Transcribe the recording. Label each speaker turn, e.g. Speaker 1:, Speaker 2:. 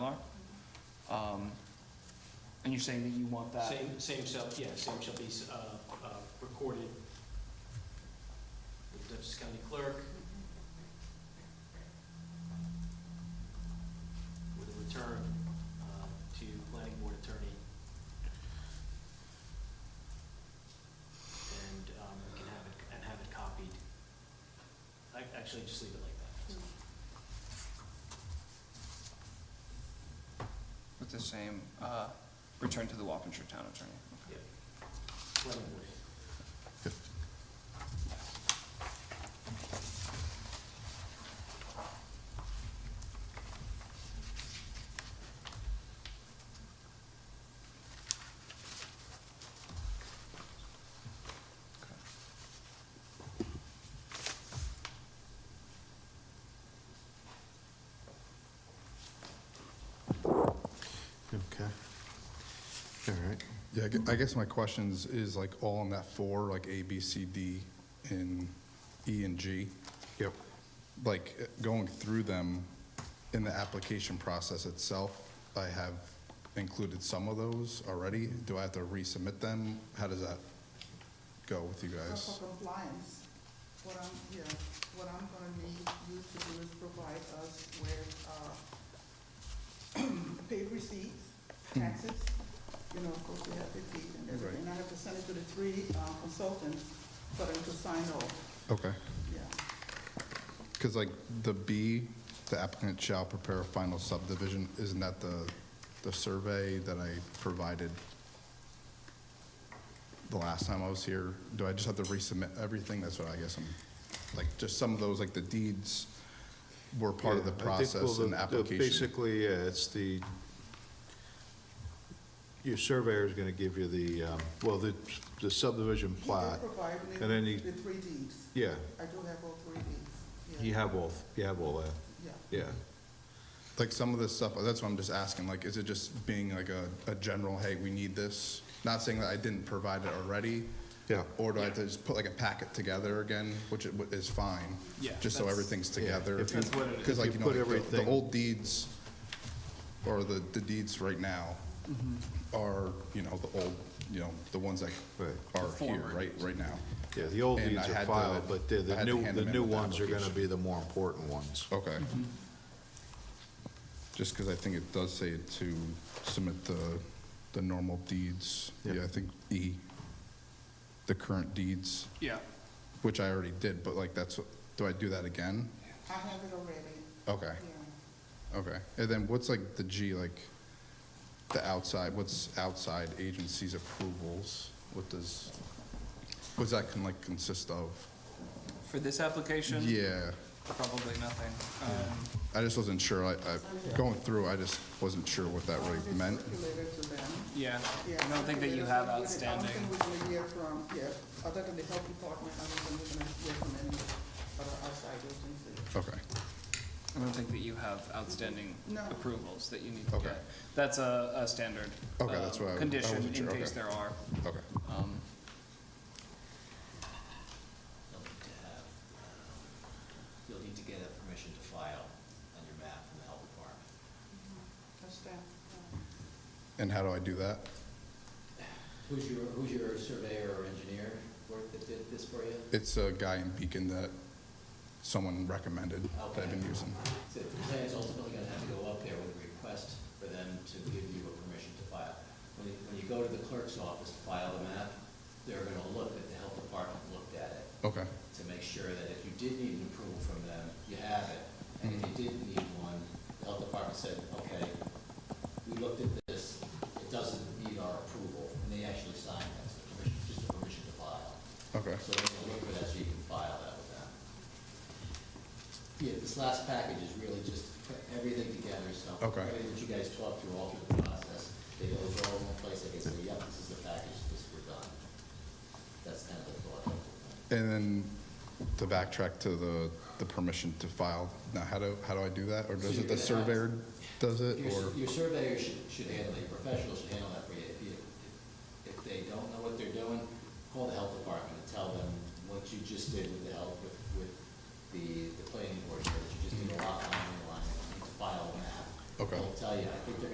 Speaker 1: Um, And you're saying that you want that?
Speaker 2: Same, same shall, yeah, same shall be uh, uh, recorded with the Dutchess County Clerk. With a return uh, to Planning Board Attorney. And um, we can have it, and have it copied. I- Actually, just leave it like that.
Speaker 1: With the same, uh, return to the Wapanger Town Attorney?
Speaker 2: Yeah. Planning Board.
Speaker 3: Okay. All right.
Speaker 4: Yeah, I gue- I guess my questions is like all on that four, like A, B, C, D, and E and G.
Speaker 3: Yep.
Speaker 4: Like eh, going through them in the application process itself, I have included some of those already. Do I have to resubmit them? How does that go with you guys?
Speaker 5: For compliance, what I'm, yeah, what I'm gonna need you to do is provide us with, uh, paid receipts, taxes, you know, of course, we have receipts and everything. And I have to send it to the three uh, consultants for them to sign off,
Speaker 4: Okay.
Speaker 5: yeah.
Speaker 4: Because like the B, the applicant shall prepare a final subdivision, isn't that the, the survey that I provided the last time I was here? Do I just have to resubmit everything? That's what I guess I'm, like, just some of those, like the deeds were part of the
Speaker 3: Yeah, I think, well,
Speaker 4: process and the application.
Speaker 3: Basically, yeah, it's the, your surveyor's going to give you the, um, well, the the subdivision
Speaker 5: He
Speaker 3: plat.
Speaker 5: did provide me
Speaker 3: and then he-
Speaker 5: with three deeds.
Speaker 3: Yeah,
Speaker 5: I do have all three deeds,
Speaker 3: you
Speaker 5: yeah,
Speaker 3: have all, you have all that,
Speaker 5: yeah.
Speaker 3: yeah.
Speaker 4: Like some of this stuff, that's what I'm just asking, like, is it just being like a, a general, hey, we need this? Not saying that I didn't provide it already,
Speaker 3: Yeah.
Speaker 4: Or do I have to just put like a packet together again, which it- is fine?
Speaker 2: Yeah,
Speaker 4: Just so
Speaker 2: that's-
Speaker 4: everything's together.
Speaker 3: if you-
Speaker 2: That's what it is.
Speaker 4: Because like,
Speaker 3: if
Speaker 4: you
Speaker 3: you
Speaker 4: know,
Speaker 3: put
Speaker 4: like the- the
Speaker 3: everything-
Speaker 4: old deeds, or the, the deeds right now
Speaker 2: Mm-hmm.
Speaker 4: are, you know, the old, you know, the ones that
Speaker 3: Right.
Speaker 4: are here,
Speaker 1: former
Speaker 4: right, right now.
Speaker 3: Yeah, the old
Speaker 4: And
Speaker 3: deeds
Speaker 4: I had
Speaker 3: are
Speaker 4: to-
Speaker 3: filed, but the-
Speaker 4: I
Speaker 3: the
Speaker 4: had to
Speaker 3: new,
Speaker 4: hand
Speaker 3: the
Speaker 4: them in
Speaker 3: new
Speaker 4: with the
Speaker 3: ones are going to
Speaker 4: application.
Speaker 3: be the more important ones.
Speaker 4: Okay. Just because I think it does say to submit the, the normal deeds.
Speaker 3: Yep.
Speaker 4: Yeah, I think E, the current deeds,
Speaker 1: Yeah.
Speaker 4: which I already did, but like that's, what- do I do that again?
Speaker 5: I have it already,
Speaker 4: Okay.
Speaker 5: yeah.
Speaker 4: Okay, and then what's like the G, like, the outside, what's outside agencies approvals? What does, what's that can like consist of?
Speaker 1: For this application?
Speaker 4: Yeah,
Speaker 1: Probably nothing. Um,
Speaker 4: I just wasn't sure, I, I, going through, I just wasn't sure what that
Speaker 5: I'll
Speaker 4: really
Speaker 5: just
Speaker 4: meant.
Speaker 5: circulate it to them.
Speaker 1: Um, Yeah,
Speaker 5: Yeah,
Speaker 1: I don't think that you have
Speaker 5: I don't
Speaker 1: outstanding.
Speaker 5: think we're gonna hear from, yeah, other than the health department, I don't think we're gonna hear from any other outside agency.
Speaker 4: Okay,
Speaker 1: I don't think that you have outstanding
Speaker 5: No.
Speaker 1: approvals that you need to
Speaker 4: Okay.
Speaker 1: get. That's a, a standard.
Speaker 4: Okay, that's
Speaker 1: um,
Speaker 4: what I- I
Speaker 1: Condition
Speaker 4: wasn't
Speaker 1: in
Speaker 4: sure,
Speaker 1: case
Speaker 4: okay.
Speaker 1: there are.
Speaker 4: okay.
Speaker 1: Um,
Speaker 6: You'll need to have, um, you'll need to get a permission to file on your map from the health department.
Speaker 5: That's that.
Speaker 4: And how do I do that?
Speaker 6: Who's your, who's your surveyor or engineer work that did this for you?
Speaker 4: It's a guy in Beacon that someone recommended that I've been using.
Speaker 6: So the plan is ultimately gonna have to go up there with a request for them to give you a permission to file. When you, when you go to the clerk's office to file the map, they're gonna look at the health department looked at it
Speaker 4: Okay,
Speaker 6: to make sure that if you did need an approval from them, you have it. And if
Speaker 4: Mm-hmm.
Speaker 6: you didn't need one, the health department said, okay, we looked at this, it doesn't need our approval, and they actually signed that, so permission, just a permission to file.
Speaker 4: okay,
Speaker 6: So they're gonna look for that, so you can file that with them. Yeah, this last package is really just put everything together, so.
Speaker 4: Okay.
Speaker 6: Everything that you guys talked through all through the process, they go all in one place, they can say, yep, this is the package, this, we're done. That's kind of the thought.
Speaker 4: and then to backtrack to the, the permission to file, now how do, how do I do that? Or
Speaker 6: So
Speaker 4: does
Speaker 6: you're
Speaker 4: it, the
Speaker 6: gonna have-
Speaker 4: surveyor does it,
Speaker 6: Your,
Speaker 4: or?
Speaker 6: s- your surveyor should, should handle, it. your professional should handle that for you. If you, if they don't know what they're doing, call the health department and tell them what you just did with the health, with, with the, the planning board, that you just did a lot line, line, you need to file a map.
Speaker 4: Okay.
Speaker 6: They'll tell you, I think they're